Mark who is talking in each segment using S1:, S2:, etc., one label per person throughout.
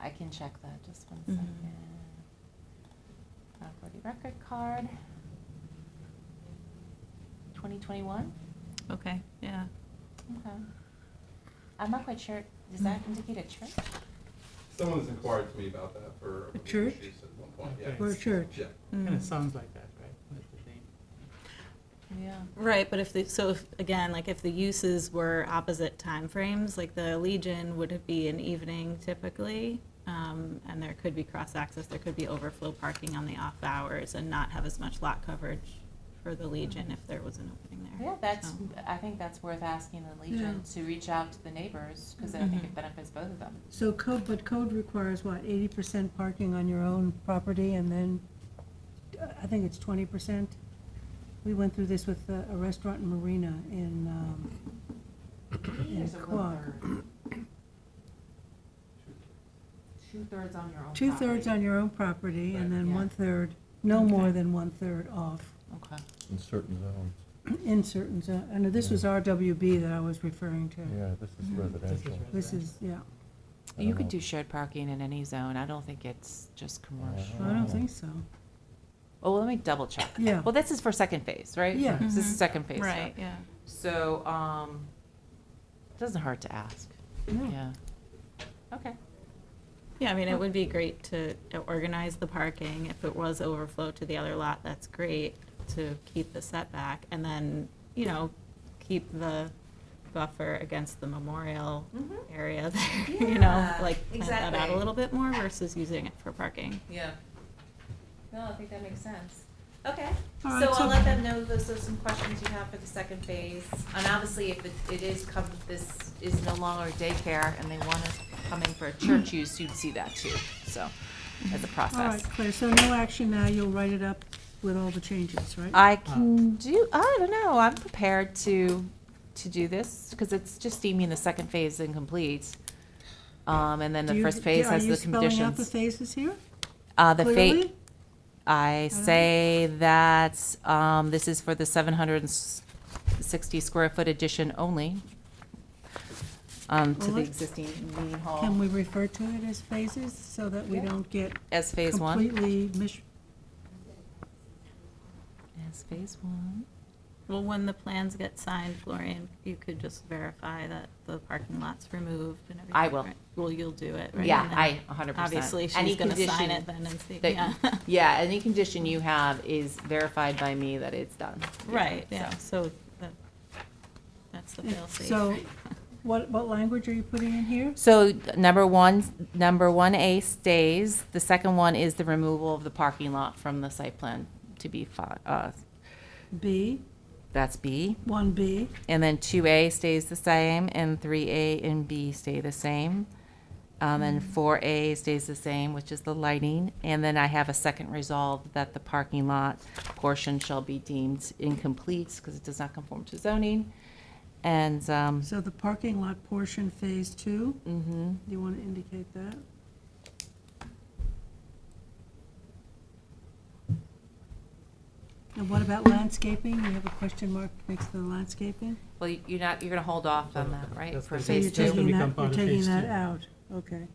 S1: I can check that, just one
S2: Mhm.
S1: second. Faculty record card. Twenty twenty-one,
S2: Okay, yeah.
S1: okay. I'm not quite sure, does that indicate a church?
S3: Someone's inquired to me about that for.
S4: A church?
S3: issues At one point, yeah.
S4: Okay.
S5: Or a church.
S3: Yeah.
S4: Kind
S2: Mm.
S4: of sounds like that, right? That's the thing.
S1: Yeah.
S2: Right, but if the, so if, again, like if the uses were opposite timeframes, like the Legion would be an evening typically, um, and there could be cross access, there could be overflow parking on the off hours, and not have as much lot coverage for the Legion if there was an opening there.
S1: Yeah, that's,
S2: So-
S1: I think that's worth asking the Legion to reach out to the neighbors, because I think
S2: Mhm.
S1: it benefits both of them.
S5: So code, but code requires what, eighty percent parking on your own property and then, uh, I think it's twenty percent? We went through this with a a restaurant in Marina in, um, in
S1: There's a
S5: Quogue.
S1: one-third. Two-thirds on your own property.
S5: Two-thirds on your own property and
S3: Right.
S5: then
S1: Yeah.
S5: one-third, no
S2: Okay.
S5: more than one-third off
S1: Okay.
S6: in certain zones.
S5: in certain, zo- and this was RWB that I was referring to.
S6: Yeah, this is
S2: Mhm.
S6: residential.
S5: This is, yeah,
S6: I
S1: You
S6: don't
S1: could
S6: know.
S1: do shared parking in any zone. I don't think it's just commercial.
S5: I don't think so.
S1: Oh, well, let me double check.
S5: Yeah.
S1: Well, this is for second phase, right?
S5: Yeah.
S1: This is
S2: Mhm.
S1: second phase. yeah.
S2: Right, yeah.
S1: So, um, it doesn't hurt to ask.
S5: No.
S1: Yeah. Okay.
S2: Yeah, I mean,
S1: Oh.
S2: it would be great to organize the parking. If it was overflow to the other lot, that's great to keep the setback. And then, you know, keep the buffer against the memorial
S1: Mhm.
S2: area there, you know?
S1: Yeah,
S2: Like, plant that out
S1: exactly.
S2: a little bit more versus using it for parking.
S1: Yeah. No, I think that makes sense. Okay, so
S5: All right, so-
S1: I'll let them know those are some questions you have for the second phase. And obviously, if it, it is come, this is no longer daycare and they want to come in for a church use, you'd see that too, so, as a process.
S5: All right, Claire, so no action now, you'll write it up with all the changes, right?
S1: I can do, I don't know, I'm prepared to, to do this, because it's just deeming the second phase incomplete. Um, and then
S5: Do
S1: the
S5: you-
S1: first phase has the
S5: Are you spelling out the
S1: conditions.
S5: phases here?
S1: Uh, the
S5: clearly?
S1: fate, I say that, um, this is for the seven hundred and sixty square foot addition only. Um, to
S5: Well,
S1: the
S5: let's-
S1: existing meeting
S5: Can
S1: hall
S5: we refer to it as phases so that we
S1: Yeah.
S5: don't get
S1: as phase one.
S5: completely mis-
S1: As phase one.
S2: Well, when the plans get signed, Florian, you could just verify that the parking lot's removed and everything.
S1: I will.
S2: right? Well, you'll do it, right?
S1: Yeah,
S2: And then
S1: I, a hundred percent.
S2: Obviously,
S1: Any
S2: she's gonna sign
S1: condition
S2: it then and see,
S1: that-
S2: yeah.
S1: Yeah, any condition you have is verified by me that it's done.
S2: Right,
S1: So-
S2: yeah, so the- that's the
S5: Yeah,
S2: fail-safe.
S5: so- What, what language are you putting in here?
S1: So number one, number one A stays. The second one is the removal of the parking lot from the site plan to be, fi- uh,
S5: B,
S1: that's B.
S5: one B,
S1: And then two A stays the same and three A and B stay the same. Um, and four A stays the same, which is the lighting. And then I have a second resolve that the parking lot portion shall be deemed incomplete because it does not conform to zoning. And, um,
S5: so the parking lot portion, phase two,
S1: mhm.
S5: do you want to indicate that? And what about landscaping? You have a question mark next to the landscaping?
S1: Well, you- you're not, you're gonna hold off on that, right?
S4: That's
S1: for
S4: gonna
S5: So
S4: be-
S5: you're
S1: phase two?
S4: gonna
S5: taking
S4: become
S5: that, you're
S4: part of
S5: taking
S4: phase
S5: that
S4: two.
S5: out, okay.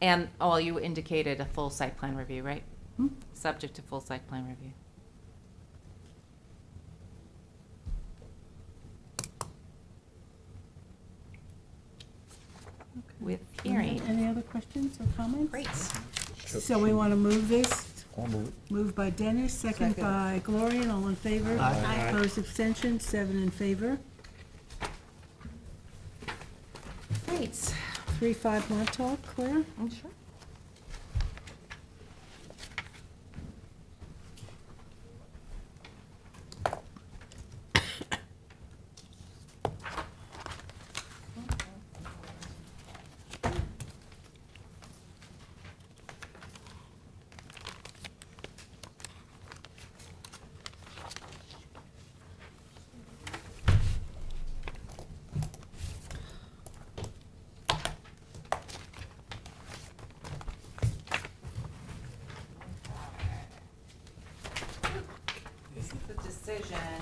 S1: And, oh, you indicated a full site plan review, right?
S5: Hmm?
S1: Subject to full site plan review. With
S5: Any
S1: hearing.
S5: any other questions or comments?
S1: Great.
S5: Mm-hmm. So we want to move this,
S6: I'll move it.
S5: moved by Dennis, second by Gloria, and all in favor?
S4: Aye. Aye.
S5: Opposed, abstentions, seven in favor.
S1: Great.
S5: Three, five Montauk, Claire?
S1: I'm Mm, sure. This is the decision,